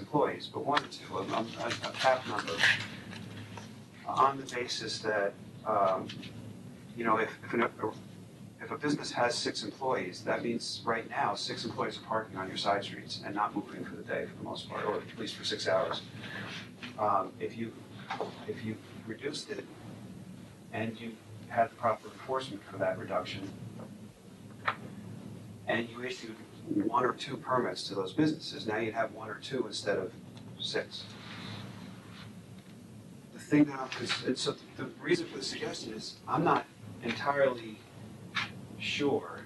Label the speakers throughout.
Speaker 1: employees, but one or two, a, a, a cap number, on the basis that, um, you know, if, if, an, if a business has six employees, that means right now, six employees are parking on your side streets and not moving for the day for the most part, or at least for six hours. Um, if you, if you reduced it and you had the proper enforcement for that reduction, and you issued one or two permits to those businesses. Now you'd have one or two instead of six. The thing that I'm, cons- and so the reason for the suggestion is, I'm not entirely sure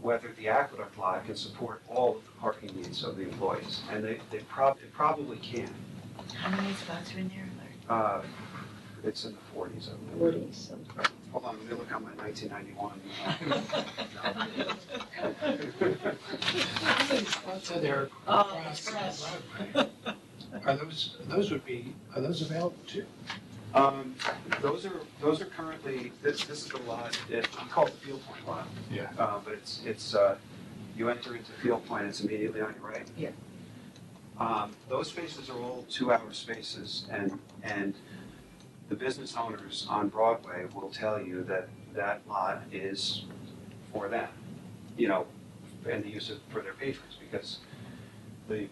Speaker 1: whether the aqueduct lot can support all of the parking needs of the employees, and they, they prob, it probably can.
Speaker 2: How many spots are in there, Larry?
Speaker 1: Uh, it's in the forties, I believe.
Speaker 2: Forty something.
Speaker 1: Hold on, let me look at my nineteen ninety-one.
Speaker 3: So they're
Speaker 4: Oh,
Speaker 3: across the
Speaker 4: across.
Speaker 3: driveway. Are those, those would be, are those available too?
Speaker 1: Um, those are, those are currently, this, this is the lot, that we call it the Field Point lot.
Speaker 3: Yeah.
Speaker 1: Uh, but it's, it's, uh, you enter into Field Point, it's immediately on your right.
Speaker 2: Yeah.
Speaker 1: Um, those spaces are all two-hour spaces, and, and the business owners on Broadway will tell you that that lot is for them, you know, and the use of, for their patrons, because the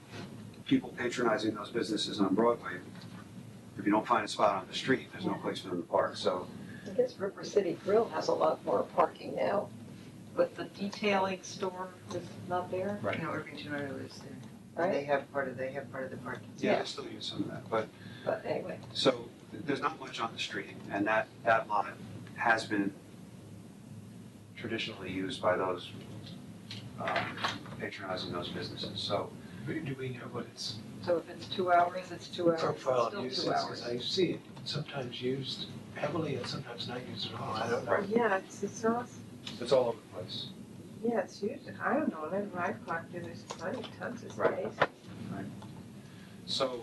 Speaker 1: people patronizing those businesses on Broadway if you don't find a spot on the street, there's no place for them to park, so.
Speaker 5: I guess River City Grill has a lot more parking now, but the detailing store is not there,
Speaker 1: Right.
Speaker 2: No, Irvington Auto is there. And They
Speaker 5: right?
Speaker 2: have part of, they have part of the parking.
Speaker 1: Yeah, they still use some of that, but,
Speaker 5: But anyway,
Speaker 1: so, th- there's not much on the street, and that, that lot has been traditionally used by those um, patronizing those businesses, so.
Speaker 3: Do we know what its
Speaker 5: so if it's two hours, it's two hours, it's
Speaker 3: profile of
Speaker 5: still
Speaker 3: use is?
Speaker 5: two
Speaker 3: 'Cause
Speaker 5: hours.
Speaker 3: I see it sometimes used heavily and sometimes not used at all. I don't know.
Speaker 2: Uh-huh.
Speaker 1: Right.
Speaker 6: Yeah, it's, it's all,
Speaker 1: It's all over the place.
Speaker 6: yeah, it's huge. I don't know, whenever I parked there, there's plenty, tons of
Speaker 1: Right.
Speaker 6: space.
Speaker 1: So,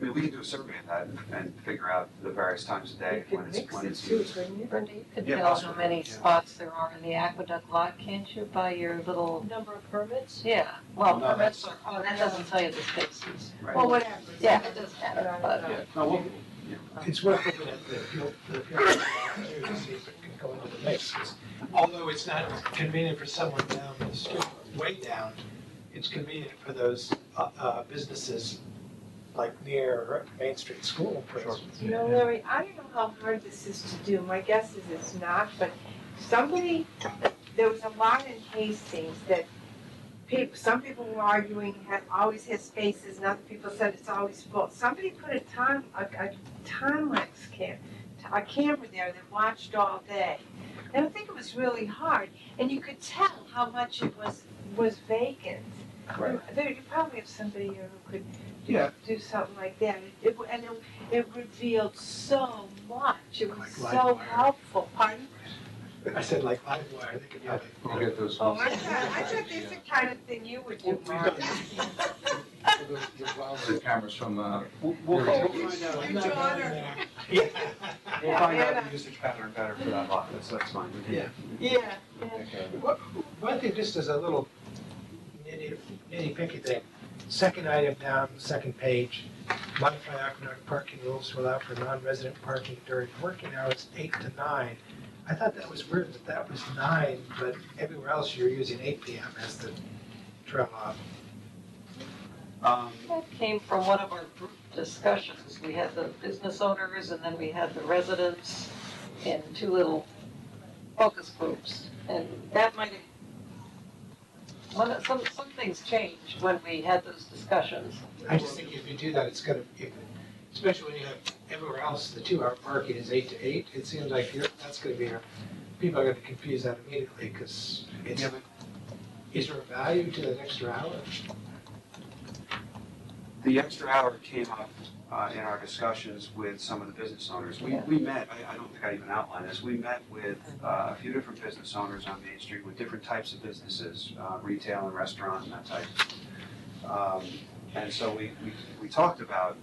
Speaker 1: I mean, we can do a survey of that and- and figure out the various times of day
Speaker 6: You
Speaker 1: when
Speaker 6: could
Speaker 1: it's,
Speaker 6: mix
Speaker 1: when
Speaker 6: it
Speaker 1: it's
Speaker 6: too,
Speaker 1: used.
Speaker 6: couldn't you?
Speaker 5: Brenda, you can
Speaker 1: Yeah,
Speaker 5: tell how
Speaker 1: possibly,
Speaker 5: many
Speaker 1: yeah.
Speaker 5: spots there are in the aqueduct lot, can't you, by your little,
Speaker 7: Number of permits?
Speaker 5: yeah, well,
Speaker 1: No,
Speaker 5: permits
Speaker 1: that's-
Speaker 5: are, oh, that doesn't tell you the spaces.
Speaker 1: Right.
Speaker 7: Well, whatever.
Speaker 5: Yeah, Uh, it does matter, but
Speaker 1: Yeah, no, we'll, yeah.
Speaker 3: It's worth looking at the appeal, the appeal too, to see if it can go into the mix. 'Cause Although it's not convenient for someone down the street, way down, it's convenient for those, uh, uh, businesses like near Main Street School, for
Speaker 1: Sure.
Speaker 3: instance.
Speaker 6: You know, Larry, I don't know how hard this is to do. My guess is it's not, but somebody, there was a lot in Hastings that people, some people were arguing had always had spaces and other people said it's always full. Somebody put a time, a, a time lapse cam, a camera there that watched all day. And I think it was really hard and you could tell how much it was, was vacant.
Speaker 1: Right.
Speaker 6: There, you probably have somebody here who could
Speaker 1: Yeah.
Speaker 6: do something like that. It, w- and it it revealed so much. It was
Speaker 3: Like
Speaker 6: so
Speaker 3: LiveWire.
Speaker 6: helpful. Pardon?
Speaker 3: I said like live wire, they could have
Speaker 8: We'll get those.
Speaker 6: Oh, I thought, I thought this is the kind of thing you would do, Mark.
Speaker 8: The cameras from, uh,
Speaker 1: We'll, we'll
Speaker 8: There
Speaker 1: we'll find out.
Speaker 3: Your daughter.
Speaker 1: We'll find out the usage pattern better for that lot, that's, that's fine. We can-
Speaker 3: Yeah.
Speaker 6: Yeah.
Speaker 3: What- One thing, just as a little nitty, nitty picky thing, second item down, second page, modify Aquanaut parking rules to allow for non-resident parking during working hours eight to nine. I thought that was weird that that was nine, but everywhere else you're using eight P M as the trail off.
Speaker 1: Um,
Speaker 5: that came from one of our group discussions. We had the business owners and then we had the residents in two little focus groups. And that might have, one, of- some, some things changed when we had those discussions.
Speaker 3: I just think if you do that, it's gonna, if- especially when you have everywhere else, the two-hour parking is eight to eight, it seems like you're, that's gonna be, a- people are gonna confuse that immediately, because it's,
Speaker 1: yeah, but
Speaker 3: is there a value to that extra hour?
Speaker 1: the extra hour came up uh, in our discussions with some of the business owners. We, we met, I, I don't think I even outlined this, we met with uh, a few different business owners on Main Street with different types of businesses, uh, retail and restaurant and that type. Um, And so we, we, we talked about,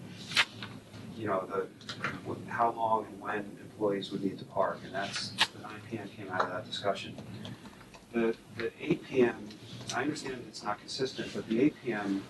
Speaker 1: you know, the, wh- how long and when employees would need to park, and that's, the nine PM came out of that discussion. The, the eight PM, I understand it's not consistent, but the eight PM